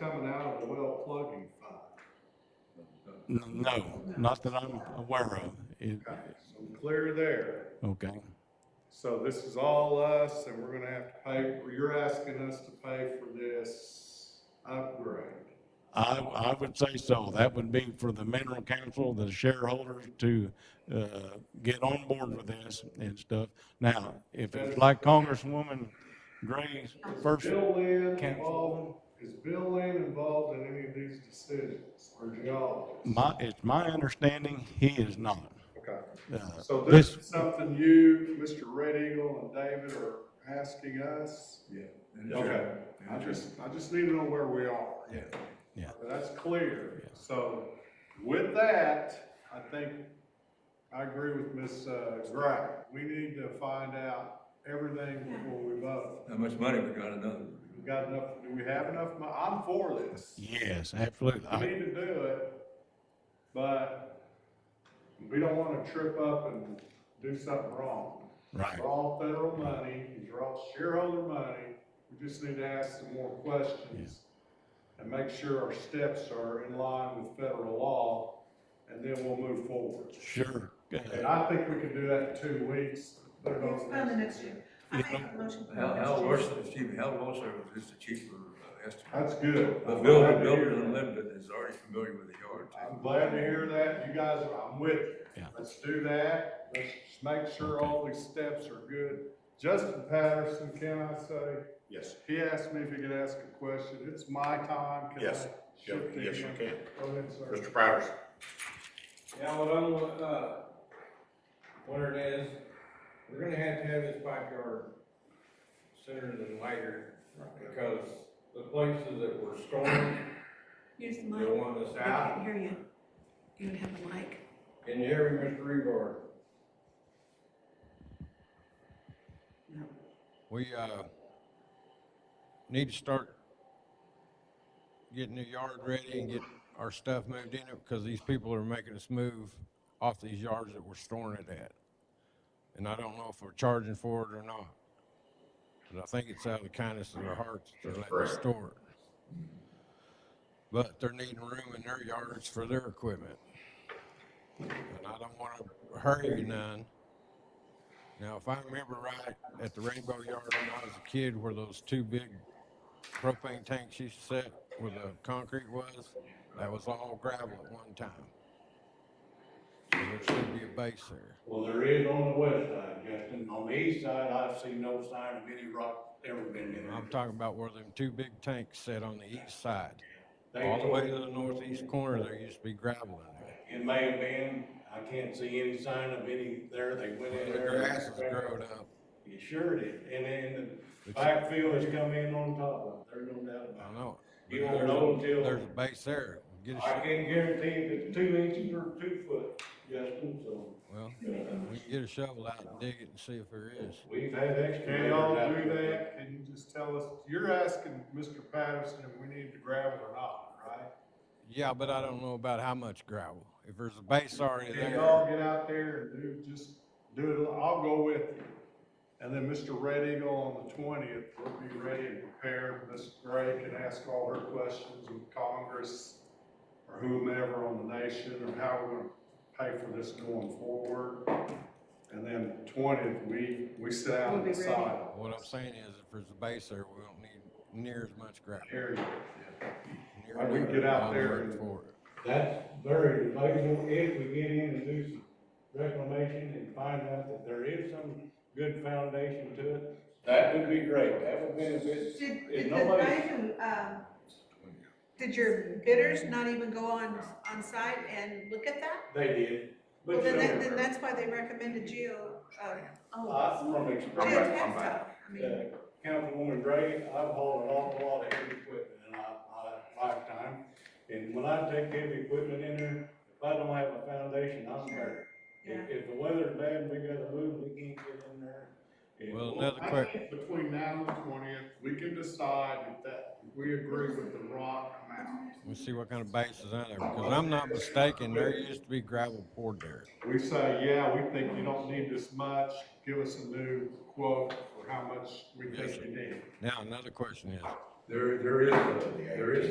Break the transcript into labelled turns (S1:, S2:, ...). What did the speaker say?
S1: coming out of the well plugging fund.
S2: N- No, not that I'm aware of. It-
S1: Okay, So clear there.
S2: Okay.
S1: So this is all us, and we're gonna have to pay, you're asking us to pay for this upgrade.
S2: I, I would say so. That would be for the mineral council, the shareholders to, uh, get on board with this and stuff. Now, if it's like Congresswoman Gray's first,
S1: Bill Lynn
S2: Council.
S1: involved, is Bill Lynn involved in any of these decisions, or geologists?
S2: my, it's my understanding, he is not.
S1: Okay,
S2: Uh,
S1: so this is something you, Mr. Red Eagle and David are asking us?
S3: Yeah.
S1: Okay, I just, I just need to know where we are.
S3: Yeah.
S2: Yeah.
S1: That's clear. So with that, I think, I agree with Ms. uh, Gray. We need to find out everything before we vote.
S3: How much money we got another?
S1: We got enough, do we have enough money? I'm for this.
S2: Yes, absolutely.
S1: We
S2: I,
S1: need to do it, but we don't want to trip up and do something wrong.
S2: right.
S1: They're all federal money, these are all shareholder money, we just need to ask some more questions. And make sure our steps are in line with federal law, and then we'll move forward.
S2: Sure.
S1: And
S2: Uh,
S1: I think we can do that in two weeks. Put it on
S4: It's done the next year. I make a motion. for
S3: How,
S4: next
S3: how
S4: year.
S3: worse, excuse me, how low service is the cheaper uh, estimate?
S1: That's good.
S3: The
S1: I'm
S3: builder,
S1: glad to
S3: builder
S1: hear that.
S3: unlimited is already familiar with the yard.
S1: I'm glad to hear that, you guys, are- I'm with you.
S2: Yeah.
S1: Let's do that, let's just make sure all these steps are good. Justin Patterson, can I say?
S5: Yes,
S1: He asked me if he could ask a question, it's my time, can I
S5: Yes.
S1: shift to
S5: Yes, you
S1: him?
S5: can.
S1: Go ahead, sir.
S5: Mr. Powers.
S6: Yeah, what I'm, uh, what it is, we're gonna have to have this backyard sooner than later, because the places that were stormed,
S4: Here's the
S6: they
S4: mic.
S6: want us
S4: I can't
S6: out.
S4: hear you. You don't have the mic.
S6: Can you hear me, Mr. Rebar?
S4: No.
S6: We, uh, need to start getting the yard ready and get our stuff moved in it, because these people are making us move off these yards that we're storing it at. And I don't know if we're charging for it or not. But I think it's out of the kindness of their hearts that they're letting us store it. But they're needing room in their yards for their equipment. And I don't want to hurry none. Now, if I remember right, at the Rainbow Yard when I was a kid, where those two big propane tanks used to sit, where the concrete was, that was all gravel at one time. So there should be a base there.
S7: Well, there is on the west side, Justin. On the east side, I've seen no sign of any rock ever been in
S6: I'm
S7: there.
S6: talking about where them two big tanks sit on the east side.
S7: They
S6: All the way to
S7: tore-
S6: the northeast corner, there used to be gravel in there.
S7: It may have been, I can't see any sign of any there. They went in
S6: The
S7: there.
S6: grass has grown up.
S7: You sure did. And then the
S6: It's-
S7: backfield has come in on top of it. There's no doubt about
S6: I know. it.
S7: You
S6: But
S7: won't know
S6: there's a-
S7: until-
S6: There's a base there. Get a
S7: it. I
S6: shot,
S7: can guarantee if it's two inches or two foot, Justin, so
S6: well, we can get a shovel out and dig it and see if there is.
S7: we've had
S1: Can
S7: excavators
S1: y'all
S7: out
S1: do
S7: there.
S1: that? Can you just tell us, you're asking Mr. Patterson if we need to gravel or not, right?
S6: Yeah, but I don't know about how much gravel. If there's a base already
S1: Can
S6: there,
S1: y'all get out there and do, just do it, I'll go with you. And then Mr. Red Eagle on the twentieth will be ready and prepared. Ms. Gray can ask all her questions with Congress or whomever on the nation or how we're gonna pay for this going forward. And then twentieth, we, we sit down and
S4: We'll be ready.
S1: decide.
S6: what I'm saying is if there's a base there, we don't need near as much gravel.
S1: Here you go.
S6: Near
S1: I can
S6: enough.
S1: get out
S6: I'll
S1: there
S6: work
S1: and-
S6: for it.
S7: That's very debatable if we get in and do some reclamation and find out that there is some good foundation to it. That would be great, that would benefit,
S4: Did,
S7: if
S4: did the,
S7: nobody-
S4: guy who, um, did your bidders not even go on, on site and look at that?
S7: they did.
S4: Well,
S7: But
S4: then, that-
S7: still,
S4: then that's why they recommended Geo, uh,
S7: I,
S4: oh,
S7: from
S4: Geo
S7: experience,
S4: Textile. I mean,
S7: uh, Councilwoman Gray, I've hauled an awful lot of heavy equipment in my, my lifetime. And when I take heavy equipment in there, if I don't have a foundation, I'm there.
S4: yeah.
S7: If, if the weather's bad, we gotta move, we can't get in there. And-
S6: Well, another
S1: I
S6: quick,
S1: think Between now and the twentieth, we can decide if that, if we agree with the rock amount.
S6: let's see what kind of base is on there, because I'm not mistaken, there used to be gravel poured there.
S1: We say, yeah, we think you don't need this much, give us a new quote for how much we
S6: Yes,
S1: think you need.
S6: Now, another question is,
S3: There, there is, a- there is